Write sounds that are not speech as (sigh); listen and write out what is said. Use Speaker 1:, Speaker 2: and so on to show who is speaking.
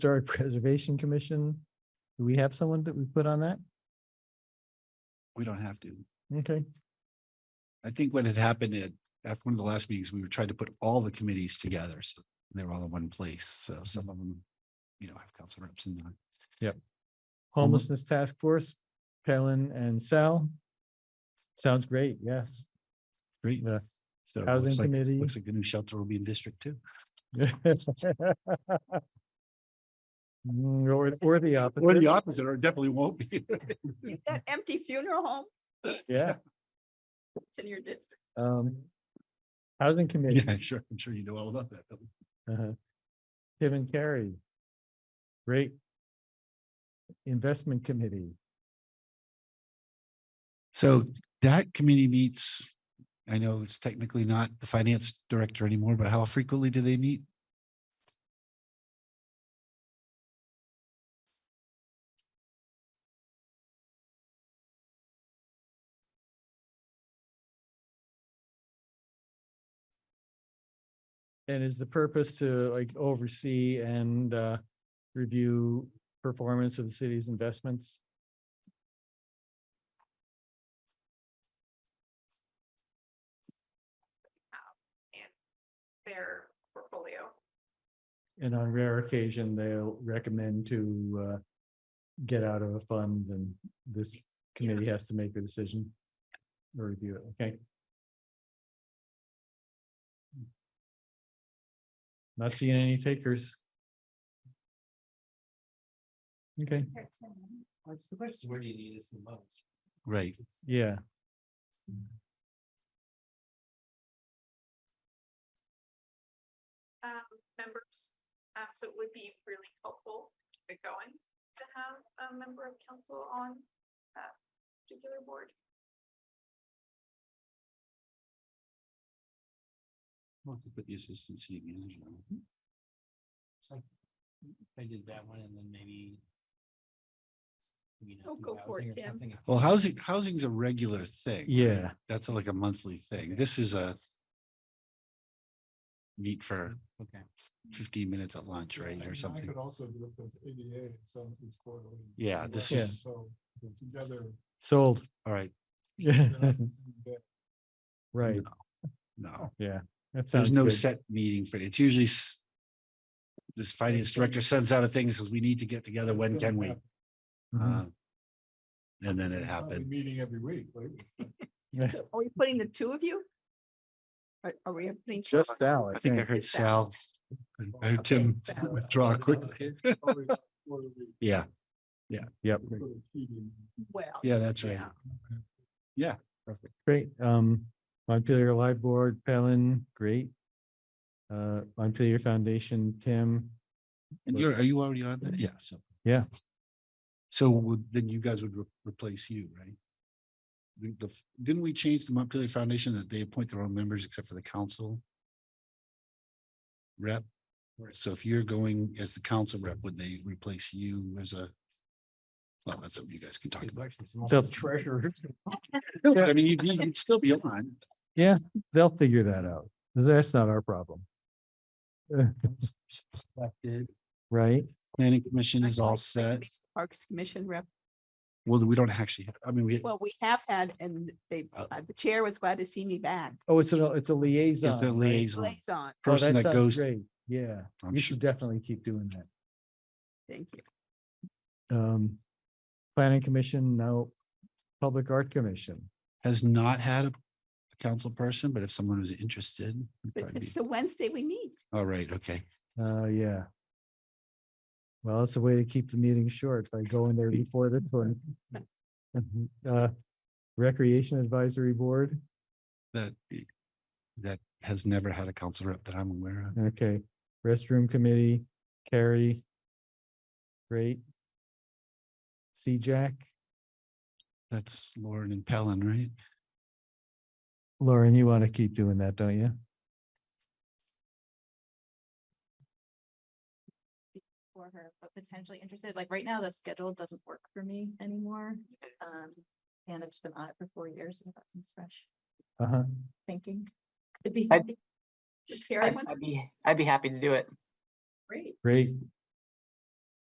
Speaker 1: Historic (laughs) Preservation Commission. Do we have someone that we put on that?
Speaker 2: We don't have to.
Speaker 1: Okay,
Speaker 2: I think what had happened at, after one of the last meetings, we were trying to put all the committees together. So they were all in one place. So
Speaker 1: Mm-hmm.
Speaker 2: some of them, you know, have council reps and not.
Speaker 1: Homelessness Task Force, Palin and Sal. Sounds great, yes.
Speaker 2: Great.
Speaker 1: Yeah.
Speaker 2: So it
Speaker 1: Housing
Speaker 2: looks like,
Speaker 1: Committee. (laughs)
Speaker 2: looks like the new shelter will be in District Two.
Speaker 1: Mm, Or, or the
Speaker 2: Or the
Speaker 1: opposite,
Speaker 2: opposite, or it definitely won't
Speaker 1: (laughs)
Speaker 2: be.
Speaker 3: Is
Speaker 2: Mm-hmm.
Speaker 3: That empty funeral home,
Speaker 1: yeah.
Speaker 3: it's in your district.
Speaker 1: Um, Housing Committee.
Speaker 2: Yeah, sure. I'm sure you know all about that. Bill.
Speaker 1: Uh-huh. Tim and Carrie. Great. Investment Committee.
Speaker 2: So that committee meets, I know it's technically not the finance director anymore, but how frequently do they meet?
Speaker 1: And is the purpose to like oversee and uh review performance of the city's investments?
Speaker 3: Their portfolio.
Speaker 1: And on rare occasion, they'll recommend to uh get out of a fund and this committee has to make the decision. Or review it, okay? Not seeing any takers. Okay,
Speaker 4: What's the question, where do you need us the most?
Speaker 2: Right.
Speaker 1: yeah,
Speaker 3: Um, members, um, so it would be really helpful to get going to have a member of council on that particular board.
Speaker 2: We'll have to Put the assistant city manager. on.
Speaker 4: So I did that one and then maybe. you know,
Speaker 3: Oh,
Speaker 4: do
Speaker 3: go for
Speaker 4: housing
Speaker 3: it,
Speaker 4: or
Speaker 3: Tim.
Speaker 4: something.
Speaker 2: Well, housing, housing's a regular thing. right?
Speaker 1: Yeah.
Speaker 2: That's like a monthly thing. This is a meet for
Speaker 4: Okay.
Speaker 2: fifteen minutes at lunch, right, or
Speaker 5: I
Speaker 2: something.
Speaker 5: could also do it with ADA, so it's quarterly.
Speaker 2: Yeah, this
Speaker 1: Yeah.
Speaker 2: is,
Speaker 5: So they're
Speaker 2: (laughs)
Speaker 5: together.
Speaker 1: sold, (laughs)
Speaker 2: all right,
Speaker 1: yeah,
Speaker 5: they're not in bed.
Speaker 1: right,
Speaker 5: Oh,
Speaker 2: no,
Speaker 1: yeah. that sounds
Speaker 2: there's no
Speaker 1: good.
Speaker 2: set meeting for, it's usually s- this finance director sends out a thing, says we need to get together,
Speaker 5: It's
Speaker 2: when
Speaker 5: gonna
Speaker 2: can we?
Speaker 5: happen.
Speaker 1: Mhm.
Speaker 5: Mm-hmm.
Speaker 2: Uh, And then it
Speaker 5: It's probably
Speaker 2: happened.
Speaker 5: Meeting every week, right?
Speaker 1: Yeah,
Speaker 3: Are we putting the two of you? Are, are we putting? two of
Speaker 1: Just
Speaker 3: us?
Speaker 1: Al, I
Speaker 2: I think I
Speaker 1: think,
Speaker 2: heard Sal, I heard
Speaker 3: Okay,
Speaker 2: Tim
Speaker 3: Sal.
Speaker 2: withdraw quickly.
Speaker 5: Probably quarterly,
Speaker 2: Yeah,
Speaker 1: yep,
Speaker 5: sort of feeding.
Speaker 3: Well.
Speaker 2: yeah, that's right.
Speaker 3: yeah.
Speaker 2: Perfect.
Speaker 1: great, um, Montpelier Live Board, Palin, great. Uh, Montpelier Foundation, (laughs) Tim,
Speaker 2: And you're, are you already on that? Yeah, so.
Speaker 1: Yeah.
Speaker 2: So would, then you guys would re- replace you, right? The- the f- didn't we change the Montpelier Foundation that they appoint their own members except for the council? Rep, so if you're going as the council rep, would they replace you as a? Well, that's something you guys can talk about.
Speaker 1: So-
Speaker 4: Treasurer.
Speaker 2: I mean, you'd, you'd still be on.
Speaker 1: they'll figure that out, 'cause that's not our problem. Right,
Speaker 2: Planning Commission is all set.
Speaker 3: Parks Commission rep,
Speaker 2: Well, we don't actually, have- I mean, we,
Speaker 3: well, we have had, and they,
Speaker 2: Uh,
Speaker 3: uh, the chair was glad to see me back,
Speaker 1: oh, it's a, it's a liaison.
Speaker 2: it's the
Speaker 1: right?
Speaker 2: liaison
Speaker 3: liaison,
Speaker 1: Oh,
Speaker 2: person that
Speaker 1: sounds
Speaker 2: goes.
Speaker 1: great. Yeah,
Speaker 2: I'm
Speaker 1: you
Speaker 2: sure-
Speaker 1: should definitely keep doing that.
Speaker 3: thank you.
Speaker 1: um, planning commission, now public art commission.
Speaker 2: has not had a a council person, but if someone was interested. it'd
Speaker 3: But
Speaker 2: probably be-
Speaker 3: it's the Wednesday we meet.
Speaker 2: All right, okay.
Speaker 1: Uh, yeah. Well, it's a way to keep the meeting short by going there before this one. Uh, Recreation Advisory Board,
Speaker 2: That, that has never had a council rep that I'm aware of.
Speaker 1: okay, restroom committee, Carrie. Great. C-Jack,
Speaker 2: That's Lauren and Pellin, right?
Speaker 1: Lauren, you want to keep doing that, don't you?
Speaker 6: for her, but potentially interested, like right now, the schedule doesn't work for me anymore. Um, and I've just been on it for four years, so I've got some fresh
Speaker 1: Uh-huh.
Speaker 6: thinking. It'd be
Speaker 7: I-
Speaker 6: helpful.
Speaker 3: Is Carrie
Speaker 7: I'd
Speaker 3: one?
Speaker 7: I'd be, I'd be happy to do it.
Speaker 3: Great.
Speaker 1: Great,